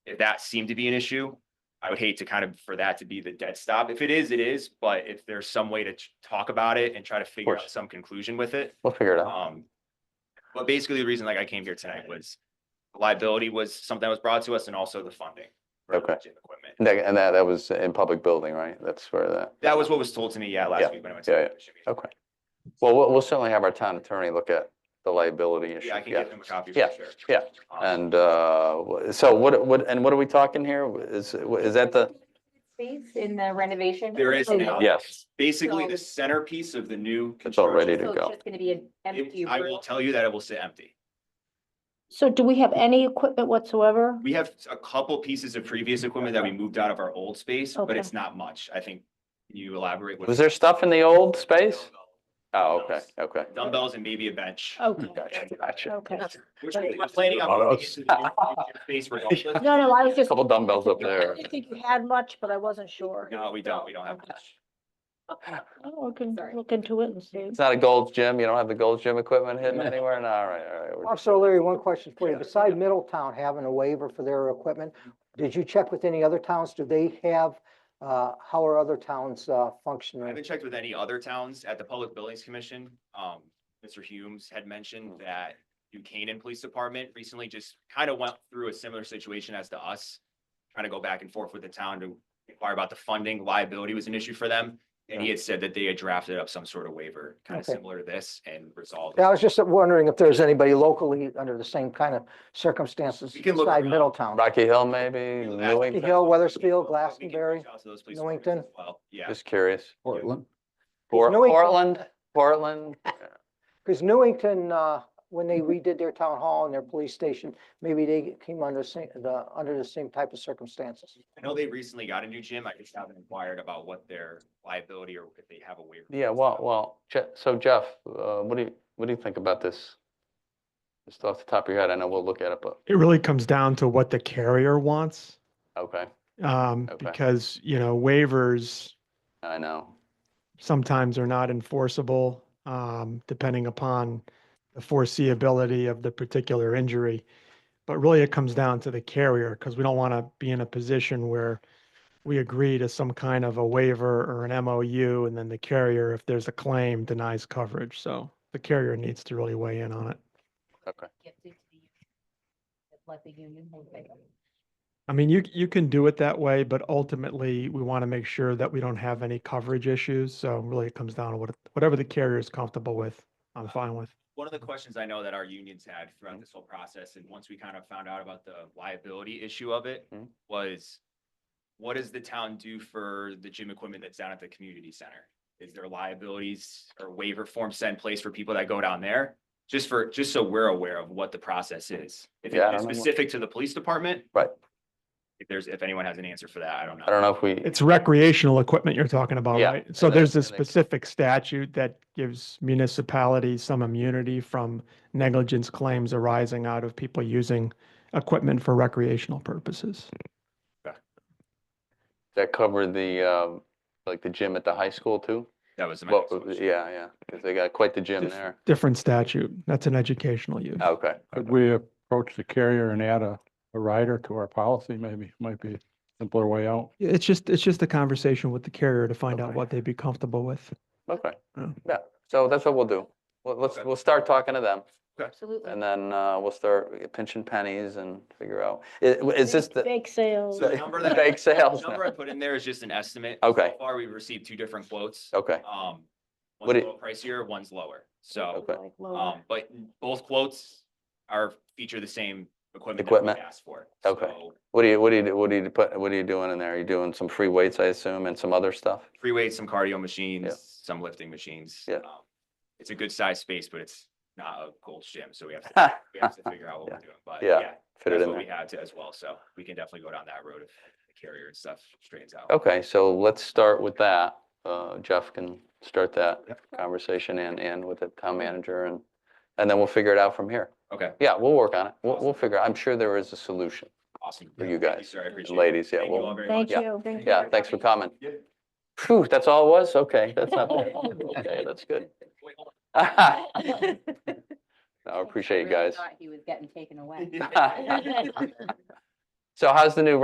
if that seemed to be an issue, I would hate to kind of, for that to be the dead stop. If it is, it is, but if there's some way to t- talk about it and try to figure out course. some conclusion with it, We'll figure it out. um, but basically the reason like I came here tonight was liability was something that was brought to us and also the funding. for the Okay. gym Equipment. And that, and that, that was in public building, right? That's where that, That was what was told to me, yeah, Yeah, last week when I went yeah, to. the okay. Well, we'll, we'll certainly have our town attorney look at the liability issue. Yeah, I can get them a copy for Yeah, sure. yeah. Um, And, uh, wh- so what, what, and what are we talking here? Is, is that the? Space in the renovation. There is now. Yes. Basically, the So- centerpiece of the new. It's all ready construction, So go. it's just gonna be an empty it- I will room. tell you that it will sit empty. So do we have any equipment whatsoever? We have a couple pieces of previous equipment that we moved out of our old space, but Okay. it's not much. I think. Can you elaborate? what- Was there stuff in the old space? Oh, okay, Dumbbells. okay. Dumbbells and maybe a bench. Oh, Okay, Hmm. Gotcha, gotcha. okay. Which we we're planning on. moving into the new Space regardless. No, no, I was just, Couple dumbbells up I there. didn't think you had much, but I wasn't sure. No, we don't. We don't have much. Oh, I can Sorry. look into it and see. It's not a Gold's Gym. You don't have the Gold's Gym equipment hidden anywhere? No, all right, all right. We're- Also, Larry, one question for you. Beside Middletown having a waiver for their equipment, did you check with any other towns? Do they have, uh, how are other towns, uh, I functioning? haven't checked with any other towns at the Public Buildings Commission. Um, Mr. Humes had mentioned Oh. that New Canaan Police Department recently just kind of went through a similar situation as to us. Trying to go back and forth with the town to inquire about the funding, liability was an issue for them. And he had said that they had drafted up some sort of waiver, kind of Okay. similar to this and resolved. Yeah, I was just wondering if there's anybody locally under the same kind of circumstances We can look beside around. Middletown. Rocky Hill, maybe? Newington? Hill, Weathersfield, Weathersfield, Glastonbury, Newington. Well, yeah, Just curious. Portland. Por- Newington- Portland, Portland. Because Newington, uh, when they redid their town hall and their police station, maybe they came under same, the, under the same type of circumstances. I know they recently got a new gym. I just haven't inquired about what their liability or if they have a waiver. Yeah, well, well, Je- so Jeff, uh, what do you, what do you think about this? Just off the top of your head, I know we'll look at it, but, It really comes down to what the carrier wants, okay, um, Okay. because, you know, waivers I know. sometimes are not enforceable, um, depending upon the foreseeability of the particular injury. But really, it comes down to the carrier, because we don't want to be in a position where we agree to some kind of a waiver or an MOU, and then the carrier, if there's a claim, denies coverage. So the carrier needs to really weigh in on it. Let the union hold it. I mean, you, you can do it that way, but ultimately we want to make sure that we don't have any coverage issues. So really it comes down to what, whatever the carrier is comfortable with, I'm fine with. one of the questions I know that our unions had throughout Mm-hmm. this whole process, and once we kind of found out about the liability issue of it, Mhm. was what does the town do for the gym equipment that's down at the community center? Is there liabilities or waiver forms set in place for people that go down there? Just for, just so we're aware of what the process is. If Yeah, it's I don't know what- specific to the police department. Right. If there's, if anyone has an answer for that, I don't know. I don't know if we, It's recreational equipment you're talking about, Yeah, right? So and that- there's a and that- specific statute that gives municipalities some immunity from negligence claims arising out of people using equipment for recreational purposes. that covered the, um, like the gym at the high school too? That was my Well, next question. yeah, yeah, 'cause they got quite the gym Dif- there. Oh. Different statute. That's an educational use. Okay. Could we approach the carrier and add a, a rider to our policy maybe? Might be a simpler way out. It's just, it's just a conversation with the carrier to find out Okay. what they'd be comfortable with. Okay, Yeah. yeah, so that's what we'll do. Well, let's, Okay. we'll start talking to them Absolutely. and then, uh, we'll start pinching pennies and figure out, is, is this the? Bake sales. So the number that- Bake sales The now. Number I put in there is just an estimate. Okay. So far, we've received two different quotes. Okay, Um, Would one's a it- little pricier, one's lower. So, Okay. Like lower. um, but both quotes are feature the same equipment that we Equipment. asked for. Okay. So what do you, what do you, what do you put, what are you doing in there? Are you doing some free weights, I assume, and some other stuff? Free weights, some cardio Yeah. machines, some lifting machines. Yeah. Um, It's a good sized space, but it's not a Gold's gym, so we have to, Ha, we have to figure out what we're doing, but Yeah, yeah. Fit it That's in what we there. had to as well, so we can definitely go down that road if the carrier and stuff straightens out. Okay, so let's start with that. Uh, Jeff can start that conversation and, and with the town manager and, and then we'll figure it out from here. Okay, Yeah, we'll work on it. We'll, Awesome. we'll figure, I'm sure there is a solution. awesome. For Yeah, you thank guys Sir, I appreciate it. Ladies, yeah, Thank you all well, very Thank much. you. Thank yeah, you. thanks for coming. Yeah. Phew, that's all it was? Okay, that's not bad. Okay, that's good. Wait, hold I I appreciate you guys. He was getting taken away. on. So how's the new